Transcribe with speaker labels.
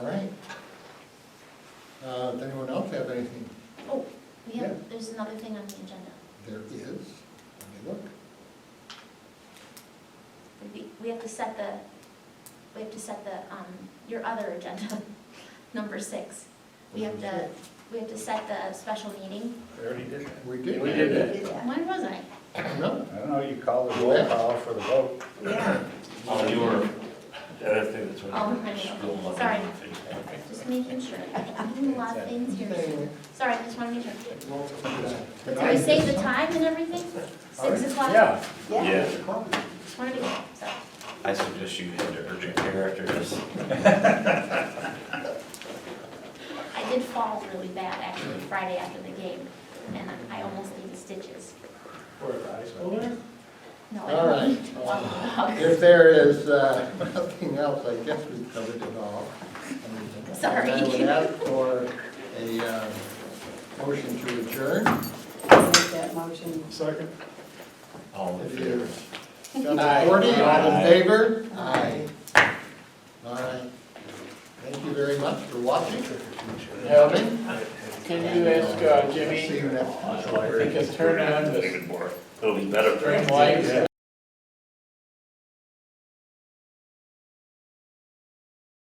Speaker 1: Uh, Does anyone else have anything?
Speaker 2: Oh, we
Speaker 1: Yeah.
Speaker 2: have, there's another thing on the agenda.
Speaker 1: There is, let me look.
Speaker 2: We- We have to set the, we have to set the, um, your other agenda, number six. We have to, we have to set the special meeting.
Speaker 3: We already did that.
Speaker 1: We did.
Speaker 3: We did that.
Speaker 2: When was I?
Speaker 1: No,
Speaker 3: I don't know, you call the roll call for the vote.
Speaker 4: Yeah,
Speaker 5: Oh, you were, I think that's what.
Speaker 2: Oh, I know. Sorry. Just making sure. I'm doing a lot of things here.
Speaker 1: anyway,
Speaker 2: Sorry, I just want to make sure.
Speaker 1: we'll-
Speaker 2: So we save the time and everything? Six o'clock?
Speaker 3: Yeah,
Speaker 4: yeah.
Speaker 5: Yeah,
Speaker 2: Just want to be, sorry.
Speaker 5: I suggest you head to urgent care after this.
Speaker 2: I did fall really bad actually Friday after the game, and I almost needed stitches.
Speaker 3: for a high schooler.
Speaker 2: No,
Speaker 1: All
Speaker 2: I
Speaker 1: right.
Speaker 2: didn't.
Speaker 1: If there is uh, nothing else, I guess we've covered it all.
Speaker 2: Sorry.
Speaker 1: I would ask for a uh, motion to adjourn.
Speaker 4: Make that motion.
Speaker 3: Second.
Speaker 5: All in
Speaker 1: If
Speaker 5: favor?
Speaker 1: you- Seven forty, all in favor? Aye. All right. Thank you very much for watching. Gentlemen,
Speaker 6: Can you ask uh,
Speaker 1: see
Speaker 6: Jimmy
Speaker 1: you next time.
Speaker 6: if he can turn on the
Speaker 5: It'll be better.
Speaker 6: string lights?